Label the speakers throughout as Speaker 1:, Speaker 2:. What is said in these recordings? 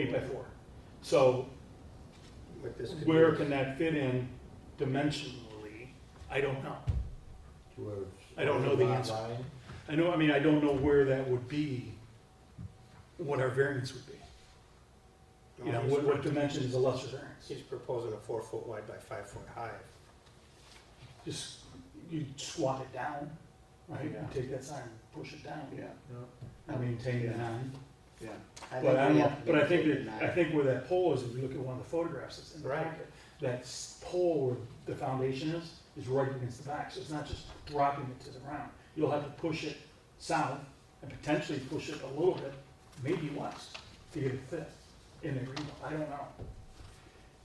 Speaker 1: eight by four. So
Speaker 2: But this could be
Speaker 1: where can that fit in dimensionally? I don't know.
Speaker 2: to a-
Speaker 1: I don't know the
Speaker 2: lot
Speaker 1: answer.
Speaker 2: line.
Speaker 1: I know, I mean, I don't know where that would be, what our variance would be. You know,
Speaker 2: No, he's
Speaker 1: what, what
Speaker 2: proposing-
Speaker 1: dimension is a lesser variance?
Speaker 2: He's proposing a four foot wide by five foot high.
Speaker 1: Just, you squat it down, right? You
Speaker 3: Yeah.
Speaker 1: take that sign, and push it down.
Speaker 3: Yeah,
Speaker 1: And maintain the nine.
Speaker 3: yeah.
Speaker 1: But I
Speaker 2: we
Speaker 1: don't, know-
Speaker 2: have to
Speaker 1: but I
Speaker 2: maintain
Speaker 1: think
Speaker 2: it
Speaker 1: that,
Speaker 2: nine.
Speaker 1: I think where that pole is, if you look at one of the photographs that's in the
Speaker 2: Right.
Speaker 1: packet, that s- pole where the foundation is, is right against the back, so it's not just dropping it to the ground. You'll have to push it south and potentially push it a little bit, maybe west, to get it fit in the green belt. I don't know.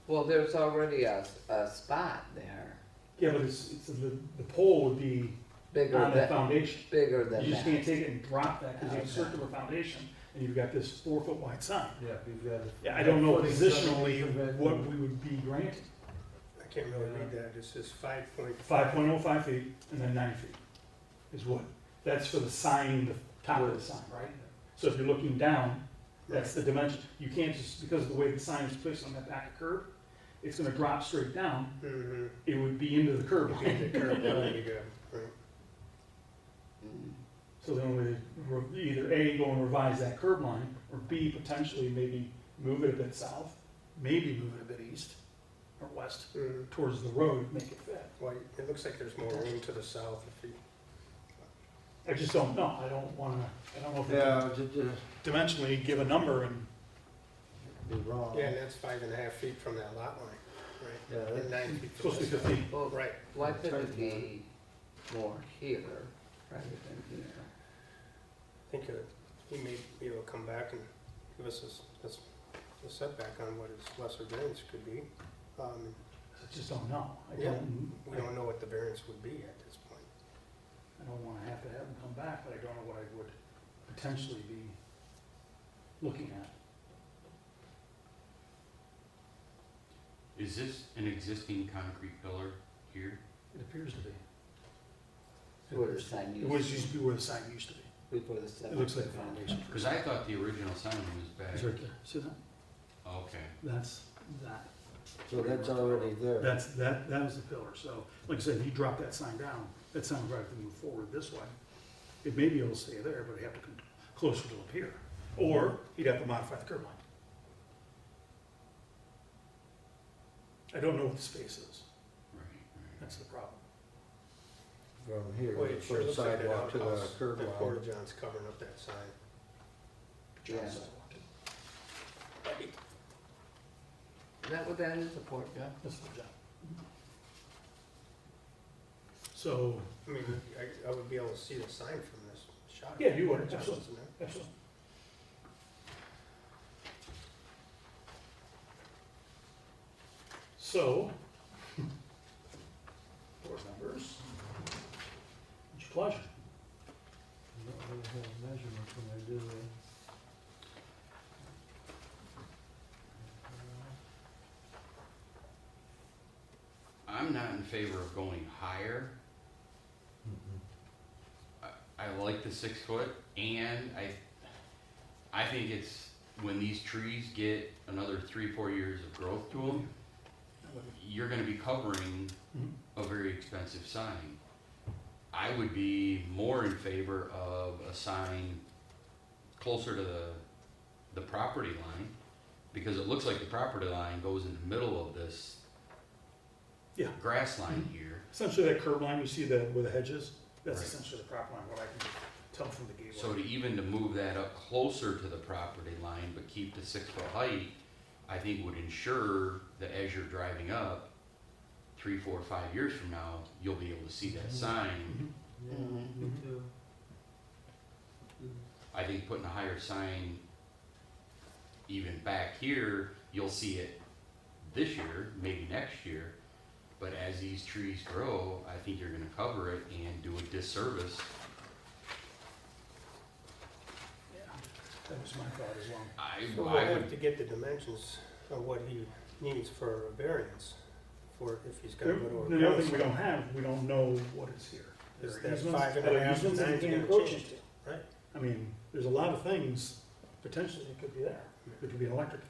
Speaker 4: Well, there's already a, a spot there,
Speaker 1: Yeah, but it's, it's, the, the pole would be
Speaker 4: bigger
Speaker 1: on that
Speaker 4: than,
Speaker 1: foundation.
Speaker 4: bigger than
Speaker 1: You just
Speaker 4: that.
Speaker 1: can't take it and drop that, because you have a
Speaker 4: Okay.
Speaker 1: circular foundation, and you've got this four-foot wide sign.
Speaker 3: Yeah, we've got.
Speaker 1: Yeah, I don't know positionally what we would be granted.
Speaker 2: I can't really read that, it says five point.
Speaker 1: Five point oh five feet and then nine feet is what, that's for the sign, the top of the sign, right? So if you're looking down, that's the dimension. You can't just, because of the way the sign is placed on that back curb, it's gonna drop straight down,
Speaker 2: Mm-hmm.
Speaker 1: it would be into the curb line.
Speaker 2: the curb line, you go, right.
Speaker 4: Mm.
Speaker 1: So then we, re- either A, go and revise that curb line, or B, potentially maybe move it a bit south, maybe move it a bit east or west
Speaker 2: Mm.
Speaker 1: towards the road, make it fit.
Speaker 2: Well, it looks like there's more room to the south if you,
Speaker 1: I just don't know, I don't wanna, I don't know if we can
Speaker 3: Yeah, just, just
Speaker 1: dimensionally give a number and
Speaker 3: be wrong.
Speaker 2: yeah, and that's five and a half feet from that lot line,
Speaker 3: Yeah,
Speaker 2: right? And
Speaker 3: that's-
Speaker 2: nine feet from
Speaker 1: Supposed to be
Speaker 2: this.
Speaker 1: fifteen.
Speaker 4: Well,
Speaker 2: Right,
Speaker 4: why couldn't it
Speaker 3: Turn
Speaker 4: be more here rather than here?
Speaker 2: I think uh, he may be able to come back and give us a s- a, s- a setback on what his lesser variance could be. Um,
Speaker 1: I just don't know. I
Speaker 2: Yeah.
Speaker 1: don't, I
Speaker 2: We
Speaker 1: don't
Speaker 2: don't know what the variance would be at this point.
Speaker 1: wanna have to have them come back, but I don't know what I would potentially be looking at.
Speaker 5: Is this an existing concrete pillar here?
Speaker 1: It appears to be.
Speaker 4: Where the sign
Speaker 1: It was
Speaker 4: used
Speaker 1: used to be where the sign used to be.
Speaker 4: before the seven.
Speaker 1: It looks like a foundation.
Speaker 5: Because I thought the original sign was
Speaker 1: It's
Speaker 5: back.
Speaker 1: right there. See that?
Speaker 5: Okay.
Speaker 1: That's that.
Speaker 3: So that's already there.
Speaker 1: That's, that, that was the pillar. So, like I said, if you drop that sign down, that sign would have to move forward this way. It may be able to stay there, but it'd have to come closer to up here. Or he'd have to modify the curb line. I don't know what the space is.
Speaker 5: Right, right.
Speaker 1: That's the problem.
Speaker 3: From here,
Speaker 2: Boy, it sure
Speaker 3: from
Speaker 2: looks like that
Speaker 3: sidewalk to the
Speaker 2: outhouse,
Speaker 3: curb
Speaker 2: that
Speaker 3: line.
Speaker 2: Porta John's covering up that sign.
Speaker 4: Yeah. Is that what that is, a port gun?
Speaker 1: That's the job. So,
Speaker 2: I mean, I, I would be able to see the sign from this shot.
Speaker 1: Yeah, you would,
Speaker 2: Porta John's,
Speaker 1: absolutely.
Speaker 2: isn't it?
Speaker 1: absolutely. So, board members, it's your pleasure.
Speaker 3: They don't really have measurements when they do that.
Speaker 5: I'm not in favor of going higher. I like the six foot and I, I think it's when these trees get another three, four years of growth to them, you're gonna be covering
Speaker 1: Mhm.
Speaker 5: a very expensive sign. I would be more in favor of a sign closer to the, the property line, because it looks like the property line goes in the middle of this
Speaker 1: Yeah.
Speaker 5: grass line here.
Speaker 1: Essentially, that curb line, you see that where the hedge is, that's
Speaker 5: Right.
Speaker 1: essentially the prop line, what I can tell from the gateway.
Speaker 5: So to even to move that up closer to the property line, but keep the six foot height, I think would ensure that as you're driving up, three, four, five years from now, you'll be able to see that
Speaker 1: Mm-hmm.
Speaker 5: sign.
Speaker 3: Yeah,
Speaker 4: Mhm.
Speaker 3: me too.
Speaker 5: I think putting a higher sign even back here, you'll see it this year, maybe next year. But as these trees grow, I think you're gonna cover it and do a disservice.
Speaker 1: Yeah, That was my thought as well.
Speaker 5: I,
Speaker 2: So we'll
Speaker 5: I would
Speaker 2: have to get the dimensions of what he needs for a variance, for if he's gonna go to a.
Speaker 1: The other thing we don't have, we don't know what is here.
Speaker 2: Is
Speaker 1: There are
Speaker 2: that
Speaker 1: easements,
Speaker 2: five and a
Speaker 1: other
Speaker 2: half,
Speaker 1: easements that
Speaker 2: nine's
Speaker 1: you can
Speaker 2: gonna
Speaker 1: encroach
Speaker 2: change,
Speaker 1: into.
Speaker 2: right?
Speaker 1: I mean, there's a lot of things, potentially, it could be there. It could be an electric